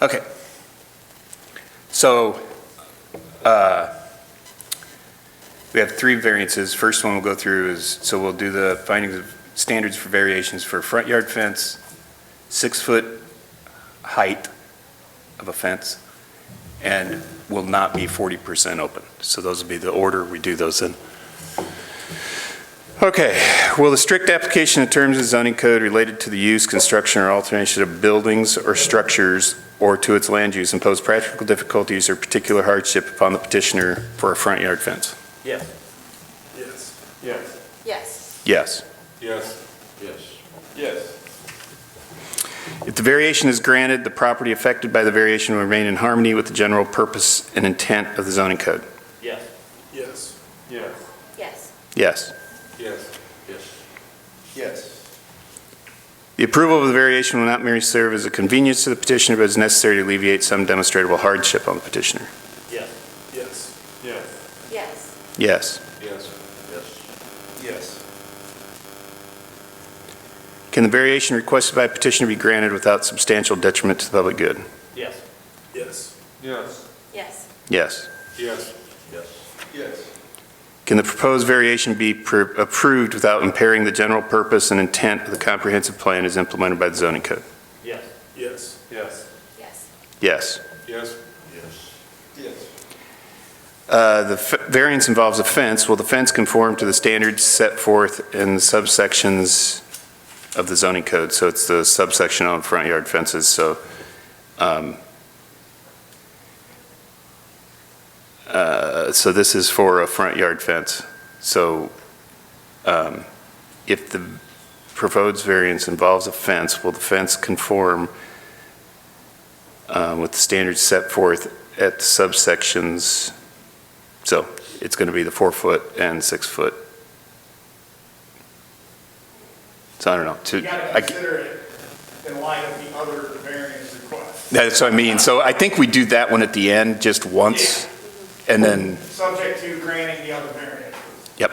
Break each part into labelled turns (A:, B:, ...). A: Okay. So, uh, we have three variances. First one we'll go through is, so we'll do the findings of standards for variations for front yard fence, six-foot height of a fence, and will not be 40% open. So those will be the order we do those in. Okay, will the strict application of terms of zoning code related to the use, construction, or alteration of buildings or structures or to its land use impose practical difficulties or particular hardship upon the petitioner for a front yard fence?
B: Yes.
C: Yes.
B: Yes.
D: Yes,
A: Yes.
C: Yes. Yes. Yes.
A: If the variation is granted, the property affected by the variation will remain in harmony with the general purpose and intent of the zoning code?
B: Yes.
C: Yes.
B: Yes.
D: yes,
A: Yes.
C: Yes. Yes. Yes.
A: The approval of the variation will not merely serve as a convenience to the petitioner, but is necessary to alleviate some demonstrable hardship on the petitioner?
B: Yes.
C: Yes.
B: Yes.
D: yes,
A: Yes.
C: Yes. Yes. Yes.
A: Can the variation requested by petitioner be granted without substantial detriment to the public good?
B: Yes.
C: Yes. Yes.
D: yes,
A: Yes.
C: Yes. Yes. Yes.
A: Can the proposed variation be pr- approved without impairing the general purpose and intent of the comprehensive plan as implemented by the zoning code?
B: Yes.
C: Yes. Yes.
D: yes,
A: Yes.
C: Yes. Yes. Yes.
A: Uh, The f- variance involves a fence. Will the fence conform to the standards set forth in the subsections of the zoning code? So it's the subsection on front yard fences, so um, uh, so this is for a front yard fence. So um, if the proposed variance involves a fence, will the fence conform uh, with the standards set forth at the subsections so it's going to be the four foot and six foot. So I don't know. to-
E: You gotta
A: I-
E: consider it in light of the other variance requests.
A: That's what I mean. So I think we do that one at the end just once and then,
E: Subject to granting the other variance.
A: yep.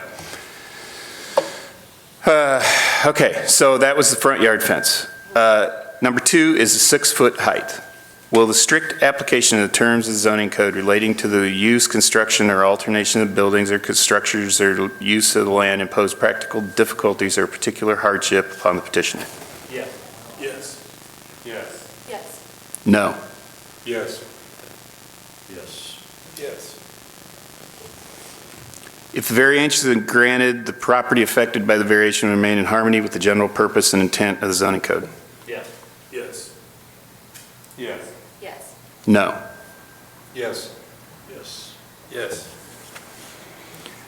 A: Uh, Okay, so that was the front yard fence. Uh, Number two is the six foot height. Will the strict application of the terms of zoning code relating to the use, construction, or alternation of buildings or structures or use of the land impose practical difficulties or particular hardship upon the petitioner?
B: Yes.
C: Yes.
B: Yes.
D: yes,
A: No.
C: Yes. Yes. Yes.
A: If the variance is granted, the property affected by the variation will remain in harmony with the general purpose and intent of the zoning code?
B: Yes.
C: Yes.
B: Yes.
D: yes,
A: No.
C: Yes. Yes. Yes.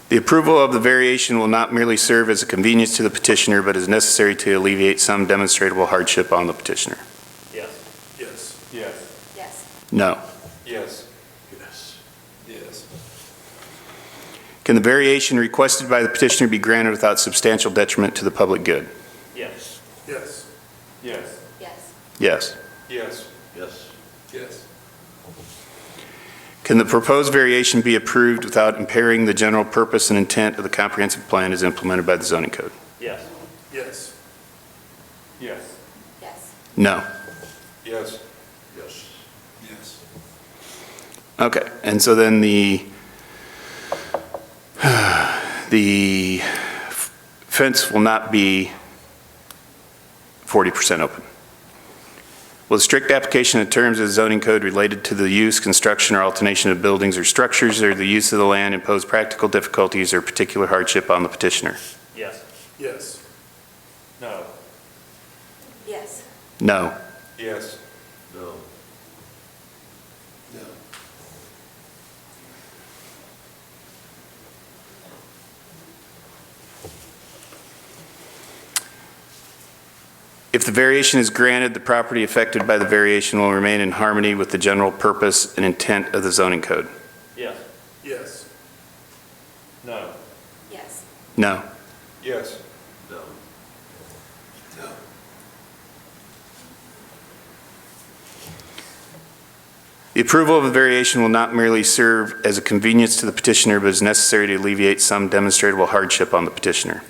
A: The approval of the variation will not merely serve as a convenience to the petitioner, but is necessary to alleviate some demonstrable hardship on the petitioner?
B: Yes.
C: Yes.
B: Yes.
D: yes,
A: No.
C: Yes. Yes. Yes.
A: Can the variation requested by the petitioner be granted without substantial detriment to the public good?
B: Yes.
C: Yes.
B: Yes.
D: yes,
A: Yes.
C: Yes. Yes. Yes.
A: Can the proposed variation be approved without impairing the general purpose and intent of the comprehensive plan as implemented by the zoning code?
B: Yes.
C: Yes.
B: Yes.
D: yes,
A: No.
C: Yes. Yes. Yes.
A: Okay, and so then the, the f- fence will not be 40% open. Will the strict application of terms of zoning code related to the use, construction, or alternation of buildings or structures or the use of the land impose practical difficulties or particular hardship on the petitioner?
B: Yes.
C: Yes.
B: No.
D: yes,
A: No.
C: Yes. No. No.
A: If the variation is granted, the property affected by the variation will remain in harmony with the general purpose and intent of the zoning code?
B: Yes.
C: Yes.
B: No.
D: yes,
A: No.
C: Yes. No. No.
A: The approval of a variation will not merely serve as a convenience to the petitioner, but is necessary to alleviate some demonstrable hardship on the petitioner.